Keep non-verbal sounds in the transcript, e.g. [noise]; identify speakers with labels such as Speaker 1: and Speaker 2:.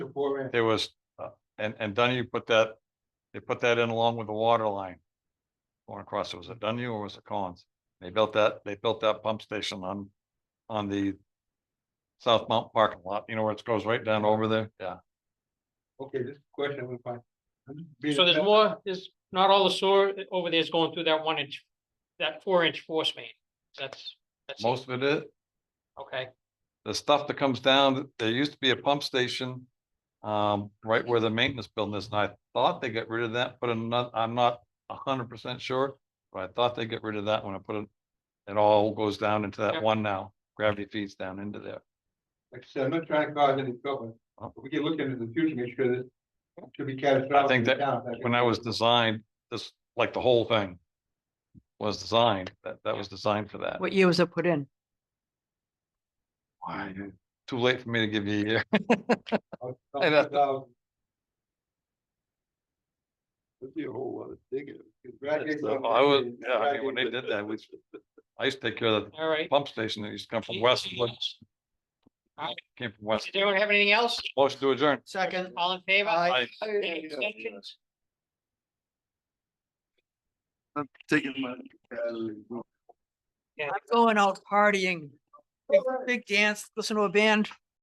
Speaker 1: before and
Speaker 2: There was, uh, and, and Dunne put that, they put that in along with the water line. Going across, was it Dunne or was it Collins? They built that, they built that pump station on, on the. South Mount parking lot, you know, where it goes right down over there, yeah.
Speaker 1: okay, this question was fine.
Speaker 3: So there's more, there's not all the sewer over there is going through that one inch, that four inch force main. That's, that's, it.
Speaker 2: Most of it is,
Speaker 3: okay,
Speaker 2: the stuff that comes down, there used to be a pump station. Um, right where the maintenance building is, and I thought they got rid of that, but I'm not, I'm not a hundred percent sure. But I thought they get rid of that when I put it, it all goes down into
Speaker 3: Yeah.
Speaker 2: that one now, gravity feeds down into there.
Speaker 1: Like I said, I'm not trying to cause any trouble,
Speaker 2: Huh?
Speaker 1: but we can look into the future, make sure that should be catastrophic.
Speaker 2: Oh. I think
Speaker 1: in
Speaker 2: that
Speaker 1: town, that's-
Speaker 2: When I was designed, this, like the whole thing. Was designed, that, that was designed for that.
Speaker 4: What year was it put in?
Speaker 2: Why? Too late for me to give you a year.
Speaker 1: I'll-
Speaker 2: I know.
Speaker 1: I'll-
Speaker 2: That'd be a whole lot of digging.
Speaker 1: Congratulations
Speaker 2: So
Speaker 1: on
Speaker 2: [laughs] I
Speaker 1: that,
Speaker 2: was,
Speaker 1: Dave.
Speaker 2: yeah, I mean, when they did that, we, I used to take care of the
Speaker 3: all right.
Speaker 2: pump station that used to come from West,
Speaker 3: Does
Speaker 2: came from West,
Speaker 3: anyone have anything else?
Speaker 2: motion to adjourn.
Speaker 4: Second.
Speaker 3: All in favor?
Speaker 2: Aye.
Speaker 3: Any extensions?
Speaker 5: I'm taking my. uh,
Speaker 4: I'm going out partying. Big- Big dance, listen to a band.